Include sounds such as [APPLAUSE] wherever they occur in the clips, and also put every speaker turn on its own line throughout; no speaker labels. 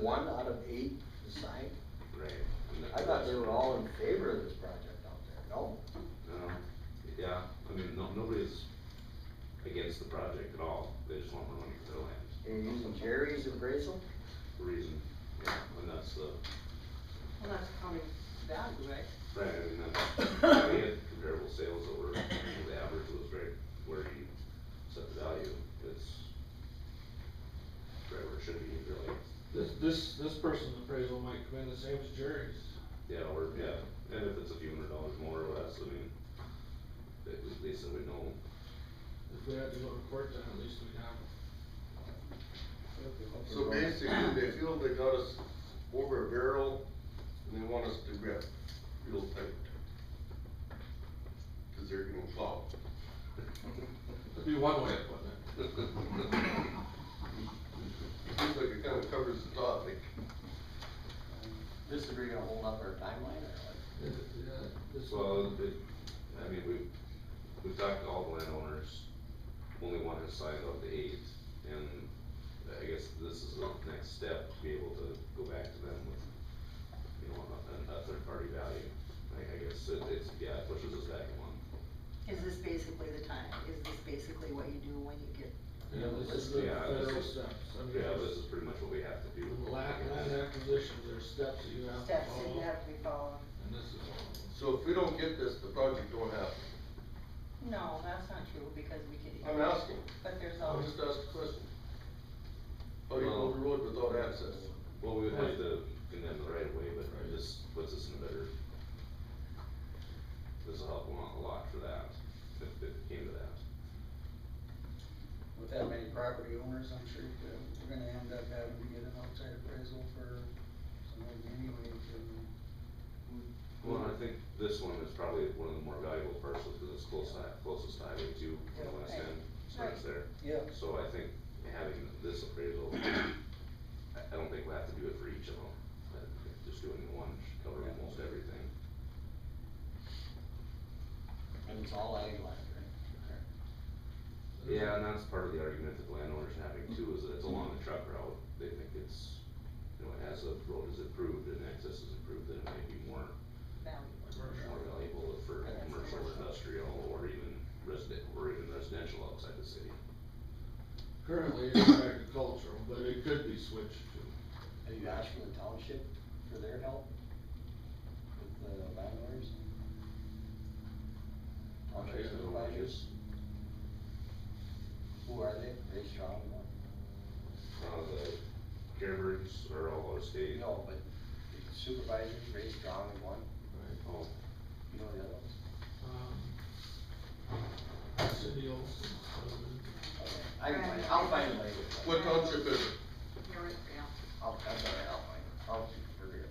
one out of eight decide?
Right.
I thought they were all in favor of this project out there, no?
No, yeah, I mean, no, nobody's against the project at all, they just want more money for their land,
You're using Jerry's appraisal?
reason, yeah, and that's the,
Well, that's counting value, right?
right, and that's, we had comparable sales that were, the average was right where you set the value, it's right where it should be, really,
This, this, this person's appraisal might come in the same as Jerry's.
yeah, or, yeah, and if it's a few hundred dollars more or less, I mean, at least that we know,
If we had to go to court, then at least we'd have.
So basically, they feel they got us over a barrel, and they want us to grip real tight. Cause they're gonna plow.
That'd be one way of putting
It
it.
[LAUGHS] seems like it kinda covers the topic.
This is really gonna hold up our timeline or what?
Yeah, this-
Well, it, I mean, we, we talked to all the landowners, only one has signed on the eighth, and I guess this is the next step, to be able to go back to them with, you know, a, a third party value. I, I guess it, it's, yeah, it pushes us back a month.
Is this basically the time, is this basically what you do when you get,
Yeah, this is the
Yeah, this
federal
is-
steps. I mean,
Yeah,
it's-
this is pretty much what we have to do.
With Land, land acquisitions, there's steps that you have to
steps that you
follow,
have to be following?
and this is one of them.
So if we don't get this, the project don't happen.
No, that's not true, because we could.
I'm asking.
But there's
I'll
always,
just ask a question. How
Oh,
do you build a road without access?
Well, we would have to condemn the right of way, but it just puts us in a better. This will help a lot for that, if it came to that.
With that many property owners, I'm sure that we're gonna end up having to get an outside appraisal for some of them anyway, and
Well, I think this one is probably one of the more valuable parcels because it's close, hi- closest to highway two on the west
Yeah, right.
end, so it's there.
Yeah.
So I think having this appraisal, I, I don't think we have to do it for each of them, but just doing the one should cover almost everything.
And it's all ag land, right?
Yeah, and that's part of the argument that landowners are having too, is that it's along the truck route, they think it's, you know, as the road is improved and access is improved, then it might be more, more valuable for
Yeah, it's
commercial, or
commercial.
industrial, or even resident, or even residential outside the city.
Currently, it's agricultural, but it could be switched to.
Have you asked for the township for their help with the landowners? Township supervisors? Who are they? Are they strong enough?
Uh, the Carebirds are all out of state.
No, but supervisors, Ray Strong is one,
Oh,
you know the other ones?
Um, Cindy Olson's husband.
Okay, I can find, I'll find them later.
What township is it?
You're right, yeah.
I'll, that's all right, I'll find them, I'll figure it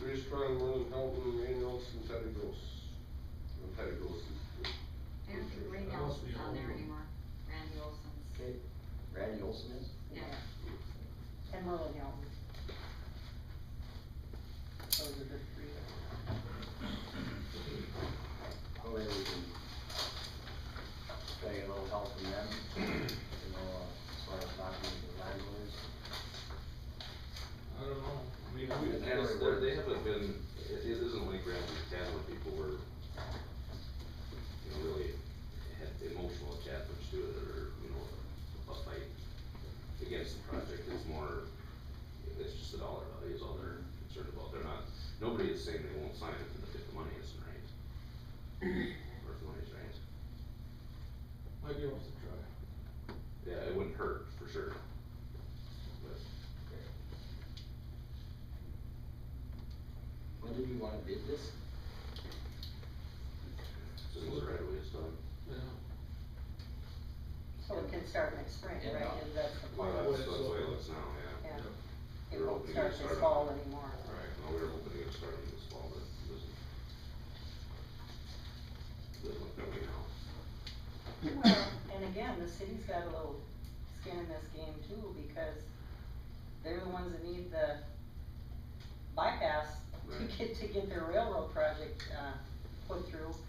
out.
Very strong, one in Helton, Rain Nelson, Teddy Gross. Well, Teddy Gross is.
I don't think Ray
That must be
Nelson's on
old.
there anymore, Randy Olson's,
Okay, Randy Olson is?
yeah.
and Merlin Young. Those are the three.
Well, maybe Oh, we can try to get a little help from them, [CLEARS THROAT] you know, as far as knocking the landlords.
I don't know, I mean,
I mean,
we,
I guess they're- they haven't been, it, it isn't like Ramsey Town where people were, you know, really had emotional attachments to it or, you know, a fight against the project. It's more, it's just the dollar value is all they're concerned about. They're not, nobody is saying they won't sign it if the- if the money isn't right. Or if the money's right.
might be worth a try.
Yeah, it wouldn't hurt, for sure. But
When did we wanna bid this?
as soon as the right of way is done.
Yeah,
So it can start next spring,
Yeah.
right, is that the
Well,
plan?
that's, that's the way it looks now, yeah.
Yeah. It
we're
won't
hoping to
start
start
this
on-
fall anymore.
Right, well, we were hoping to get started this fall, but it doesn't. Doesn't look that way now.
Well, and again, the city's got a little skin in this game too, because they're the ones that need the bypass to
Right.
get, to get their railroad project, uh, put through.